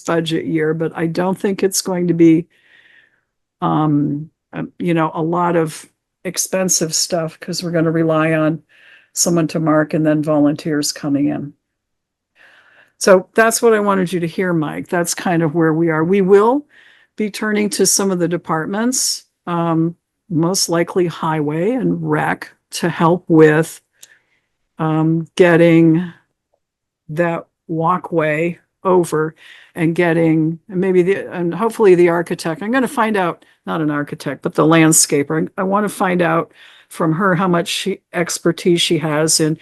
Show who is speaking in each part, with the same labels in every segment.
Speaker 1: budget year, but I don't think it's going to be um, um, you know, a lot of expensive stuff because we're going to rely on someone to mark and then volunteers coming in. So that's what I wanted you to hear, Mike. That's kind of where we are. We will be turning to some of the departments, um, most likely highway and rec to help with um, getting that walkway over and getting and maybe the, and hopefully the architect, I'm going to find out, not an architect, but the landscaper. I want to find out from her how much she, expertise she has in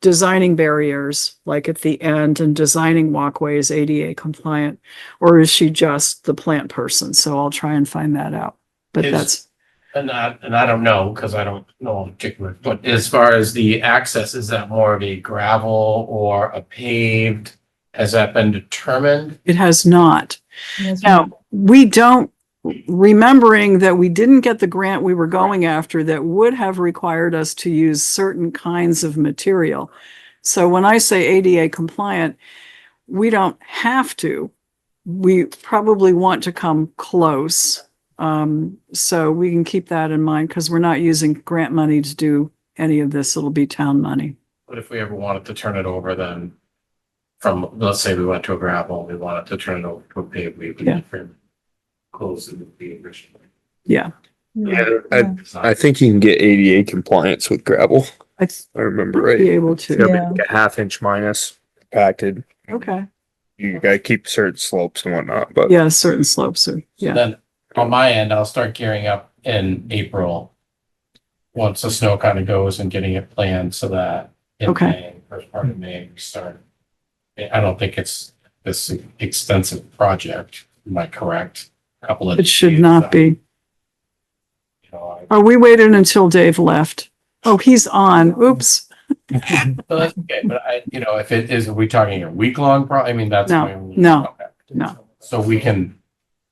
Speaker 1: designing barriers, like at the end and designing walkways ADA compliant? Or is she just the plant person? So I'll try and find that out. But
Speaker 2: Is-
Speaker 1: that's,
Speaker 2: And I, and I don't know, because I don't know in particular, but as far as the access, is that more of a gravel or a paved? Has that been determined?
Speaker 1: it has not.
Speaker 3: Yes,
Speaker 1: Now, we don't, remembering that we didn't get the grant we were going after that would have required us to use certain kinds of material. So when I say ADA compliant, we don't have to. We probably want to come close. Um, so we can keep that in mind because we're not using grant money to do any of this. It'll be town money.
Speaker 2: But if we ever wanted to turn it over, then from, let's say we went to a gravel, we wanted to turn it over to a paved, we would
Speaker 1: Yeah.
Speaker 2: different close in the original.
Speaker 1: Yeah.
Speaker 3: yeah.
Speaker 4: Yeah, I, I think you can get ADA compliance with gravel.
Speaker 1: I'd
Speaker 4: I remember
Speaker 1: be
Speaker 4: right.
Speaker 1: able
Speaker 4: Yeah,
Speaker 1: to.
Speaker 4: but
Speaker 3: Yeah.
Speaker 4: like a half inch minus compacted.
Speaker 1: Okay.
Speaker 4: You gotta keep certain slopes and whatnot, but
Speaker 1: Yeah, certain slopes are,
Speaker 2: So
Speaker 1: yeah.
Speaker 2: Then on my end, I'll start gearing up in April. Once the snow kind of goes and getting it planned so that in
Speaker 1: Okay.
Speaker 2: May, first part of May, we start. I I don't think it's this extensive project, am I correct? Couple of.
Speaker 1: It should
Speaker 2: days,
Speaker 1: not
Speaker 2: uh,
Speaker 1: be.
Speaker 2: you know, I-
Speaker 1: Oh, we waited until Dave left. Oh, he's on. Oops.
Speaker 2: But that's okay, but I, you know, if it is, are we talking a week long pro, I mean, that's.
Speaker 1: No,
Speaker 2: when we-
Speaker 1: no,
Speaker 2: okay.
Speaker 1: no.
Speaker 2: So we can,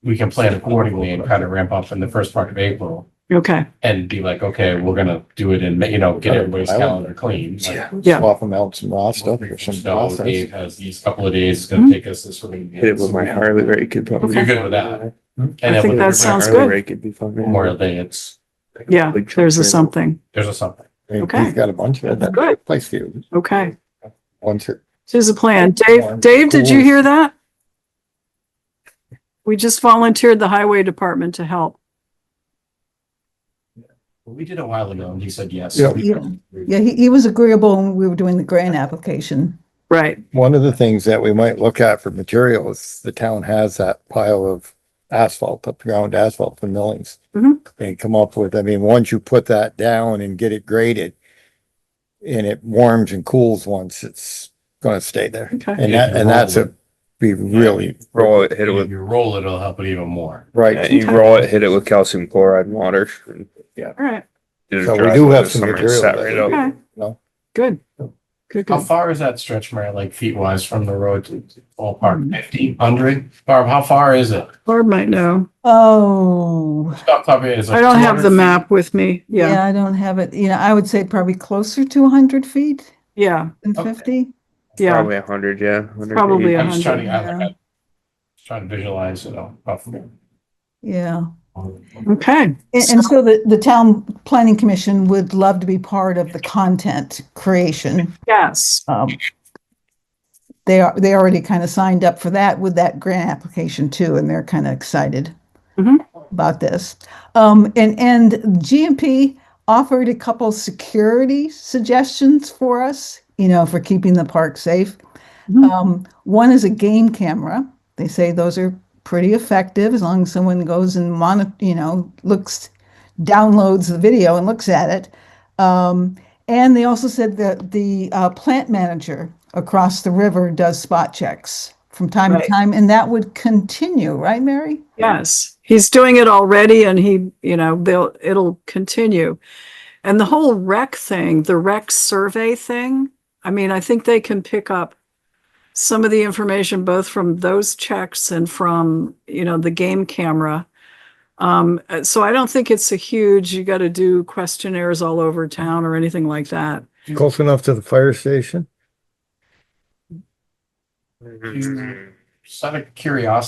Speaker 2: we can plan accordingly and kind of ramp up in the first part of April.
Speaker 1: Okay.
Speaker 2: and be like, okay, we're gonna do it in, May, you know,
Speaker 5: Oh,
Speaker 2: get everybody's calendar clean. like,
Speaker 4: Yeah.
Speaker 1: Yeah.
Speaker 5: Swap them out some raw stuff or some
Speaker 2: No,
Speaker 5: process.
Speaker 2: Dave has these couple of days, it's
Speaker 1: Mm-hmm.
Speaker 2: gonna take us this week.
Speaker 4: hit it with my Harley rake could probably.
Speaker 2: You're good with that. And
Speaker 1: I
Speaker 2: then
Speaker 1: think
Speaker 2: with
Speaker 1: that
Speaker 4: My
Speaker 1: sounds
Speaker 4: Harley
Speaker 1: good.
Speaker 4: Rake would be fun.
Speaker 2: Memorial Day, it's,
Speaker 1: Yeah,
Speaker 4: Big
Speaker 1: there's a
Speaker 4: trailer.
Speaker 1: something.
Speaker 2: there's a something.
Speaker 1: Okay.
Speaker 5: He's got a bunch of that
Speaker 1: Good.
Speaker 5: place here.
Speaker 1: Okay.
Speaker 5: Once it,
Speaker 1: Here's a plan. Dave, Dave, did you hear that? We just volunteered the highway department to help.
Speaker 2: We did a while ago and he said yes.
Speaker 5: Yeah.
Speaker 3: Yeah. Yeah, he, he was agreeable when we were doing the grant application.
Speaker 1: Right.
Speaker 5: one of the things that we might look at for materials, the town has that pile of asphalt, up ground asphalt for millings.
Speaker 1: Mhm.
Speaker 5: And come up with, I mean, once you put that down and get it graded and it warms and cools once, it's gonna stay there.
Speaker 1: Okay.
Speaker 5: And that, and that's a, be really,
Speaker 4: Roll it, hit it
Speaker 2: If
Speaker 4: with,
Speaker 2: you roll it, it'll help it even more.
Speaker 4: yeah,
Speaker 5: right.
Speaker 4: you roll it, hit it with calcium chloride and water. and
Speaker 1: All right.
Speaker 4: do the
Speaker 5: So we
Speaker 4: dry
Speaker 5: do
Speaker 4: over
Speaker 5: have
Speaker 4: the
Speaker 5: some
Speaker 4: summer and
Speaker 5: material.
Speaker 4: set
Speaker 5: that
Speaker 4: right
Speaker 5: we-
Speaker 4: up.
Speaker 1: Okay.
Speaker 5: No,
Speaker 1: Good. Good,
Speaker 2: How
Speaker 1: good.
Speaker 2: far is that stretch, Mary, like feet wise from the road to
Speaker 1: Mm-hmm.
Speaker 2: ballpark, fifty, hundred? Barb, how far is it?
Speaker 1: Barb might know.
Speaker 3: Oh,
Speaker 2: Stop, stop, it's like
Speaker 1: I don't have
Speaker 2: 200
Speaker 1: the
Speaker 2: feet.
Speaker 1: map with me. Yeah.
Speaker 3: yeah, I don't have it. You know, I would say probably closer to 100 feet
Speaker 1: Yeah.
Speaker 3: than
Speaker 2: Okay.
Speaker 3: 50.
Speaker 1: Yeah.
Speaker 4: Probably a hundred, yeah. 100
Speaker 1: Probably
Speaker 4: feet.
Speaker 2: I'm just trying to, I-
Speaker 3: Yeah.
Speaker 2: I'm trying to visualize, you know, roughly.
Speaker 3: Yeah.
Speaker 1: Okay.
Speaker 3: And, and so the, the town planning commission would love to be part of the content creation.
Speaker 1: Yes.
Speaker 3: Um, they are, they already kind of signed up for that with that grant application too, and they're kind of excited
Speaker 1: Mhm.
Speaker 3: about this. Um, and, and GMP offered a couple security suggestions for us, you know, for keeping the park safe.
Speaker 1: Mhm.
Speaker 3: Um, one is a game camera. They say those are pretty effective as long as someone goes and monitor, you know, looks, downloads the video and looks at it. Um, and they also said that the uh, plant manager across the river does spot checks from time
Speaker 1: Right.
Speaker 3: to time, and that would continue, right, Mary?
Speaker 1: Yes, he's doing it already and he, you know, they'll, it'll continue. And the whole rec thing, the rec survey thing, I mean, I think they can pick up some of the information both from those checks and from, you know, the game camera. Um, uh, so I don't think it's a huge, you got to do questionnaires all over town or anything like that.
Speaker 5: close enough to the fire station.
Speaker 4: Mhm.
Speaker 2: just out of curiosity,